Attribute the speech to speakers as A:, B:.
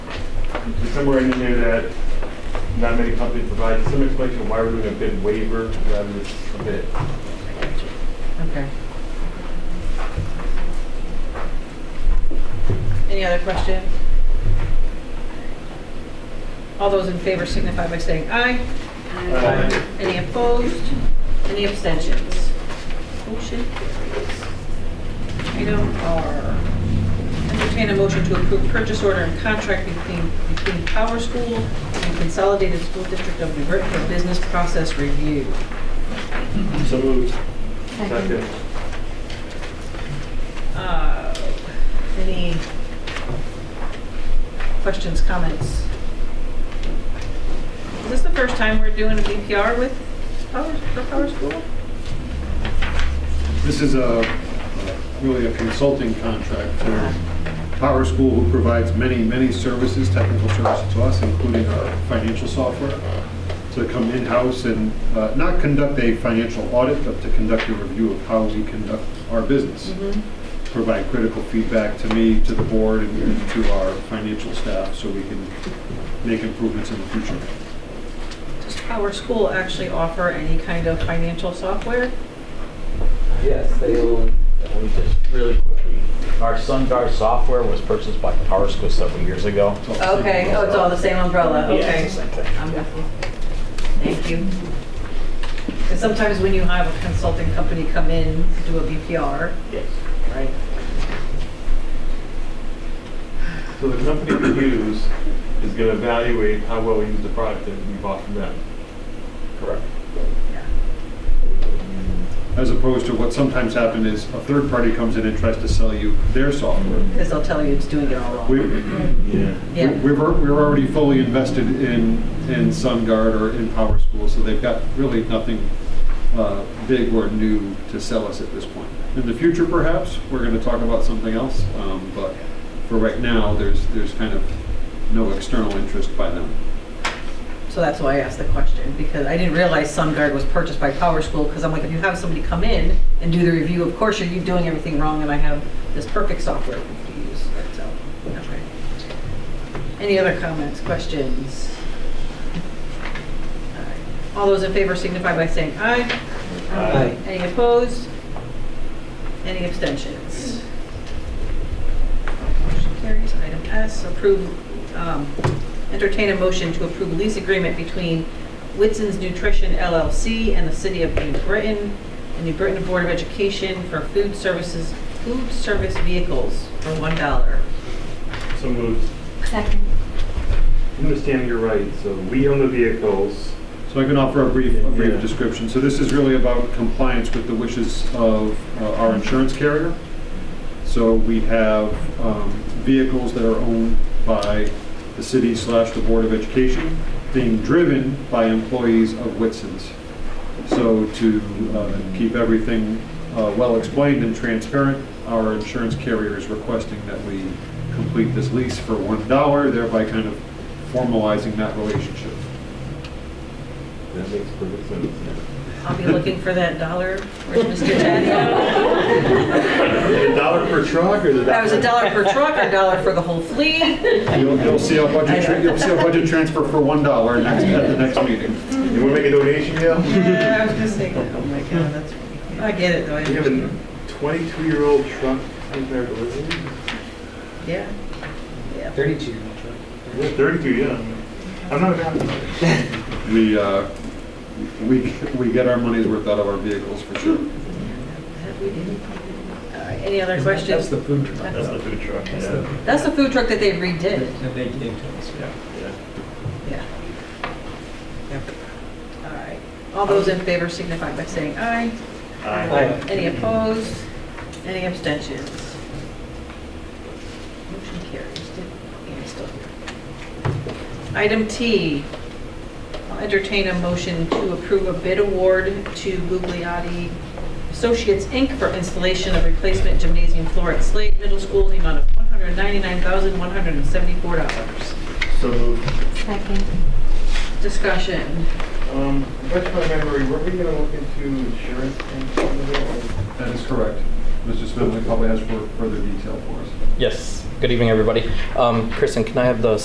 A: somewhere in there that not many companies provide, some explanation why we're doing a bid waiver rather than just a bid.
B: Okay.
C: Any other questions? All those in favor signify by saying aye.
A: Aye.
C: Any opposed? Any abstentions? Motion carries. Item R, entertain a motion to approve purchase order and contract between, between Power School and Consolidated School District of New Britain for business process review.
A: So moved.
D: Second.
A: Second.
C: Uh, Any questions, comments? Is this the first time we're doing a BPR with Power, for Power School?
E: This is a, really a consulting contract for Power School, who provides many, many services, technical services to us, including our financial software, to come in-house and uh, not conduct a financial audit, but to conduct a review of how we conduct our business,
C: Mm-hmm.
E: provide critical feedback to me, to the board, and to our financial staff, so we can make improvements in the future.
C: Does Power School actually offer any kind of financial software?
F: Yes, they will, we just really quickly, our SunGuard software was purchased by Power School several years ago.
E: So-
C: Okay, oh, it's all the same umbrella,
F: Yeah,
C: okay.
F: it's the same thing.
C: Wonderful. Thank you. And sometimes when you have a consulting company come in, do a BPR,
F: Yes.
C: right?
A: So the company we use is going to evaluate how well we use the product that we bought from them.
F: Correct.
E: As opposed to what sometimes happens is a third party comes in and tries to sell you their software.
C: Because they'll tell you it's doing it all
E: We,
C: wrong.
E: we-
A: Yeah.
C: Yeah.
E: we're, we're already fully invested in, in SunGuard or in Power School, so they've got really nothing uh, big or new to sell us at this point. In the future, perhaps, we're gonna talk about something else, um, but for right now, there's, there's kind of no external interest by them.
C: So that's why I asked the question, because I didn't realize SunGuard was purchased by Power School, because I'm like, if you have somebody come in and do the review, of course, you're you're doing everything wrong, and I have this perfect software to use, so, okay. Any other comments, questions? All right. All those in favor signify by saying aye.
A: Aye.
C: Any opposed? Any abstentions? Motion carries. Item S, approve, um, entertain a motion to approve lease agreement between Whitson's Nutrition LLC and the City of New Britain, and New Britain Board of Education for food services, food service vehicles for $1.
A: So moved.
D: Second.
A: I'm understanding you're right, so we own the vehicles.
E: So I can offer a brief, a
A: Yeah.
E: brief description. So this is really about compliance with the wishes of uh, our insurance carrier. So we have um, vehicles that are owned by the city slash the Board of Education, being driven by employees of Whitson's. So to uh, keep everything uh, well explained and transparent, our insurance carrier is requesting that we complete this lease for one dollar, thereby kind of formalizing that relationship.
A: That makes perfect sense.
C: I'll be looking for that dollar. Where's Mr. Tadeo?
A: A dollar per truck or the?
C: That was a dollar per truck or a dollar for the whole fleet? Uh,
E: You'll, you'll see a budget, tran- you'll see a budget transfer for one dollar next, at the next meeting.
A: You want to make a donation, Gail?
C: Yeah, I was gonna say, that. oh my God, that's, I get it though. I
A: We have a
C: understand.
A: 22-year-old truck compared to this.
C: Yeah. Yeah.
G: 32.
A: Yeah, 32, yeah. I'm not a math.
E: We, uh, we, we get our money's worth out of our vehicles for sure.
C: That we did. All right, Any other
G: That's
C: questions?
G: the food truck.
A: the food truck.
G: That's the-
C: That's the food truck that they redid.
G: That they gave to us, yeah.
C: Yeah. All right. All those in favor signify by saying aye.
G: Aye.
C: Any opposed? Any abstentions? Motion carries. Did- yeah, still here. Item T, I'll entertain a motion to approve a bid award to Gugliotti Associates, Inc. for installation of replacement gymnasium floor at Slade Middle School in the amount of $199,174.
A: So moved.
D: Second.
C: Discussion.
A: Um, refresh my memory, were we gonna look into insurance and some of it?
E: That is correct. Mr. Smith, we probably has for further detail for us.
H: Yes. Good evening, everybody. Um, Kristen, can I have the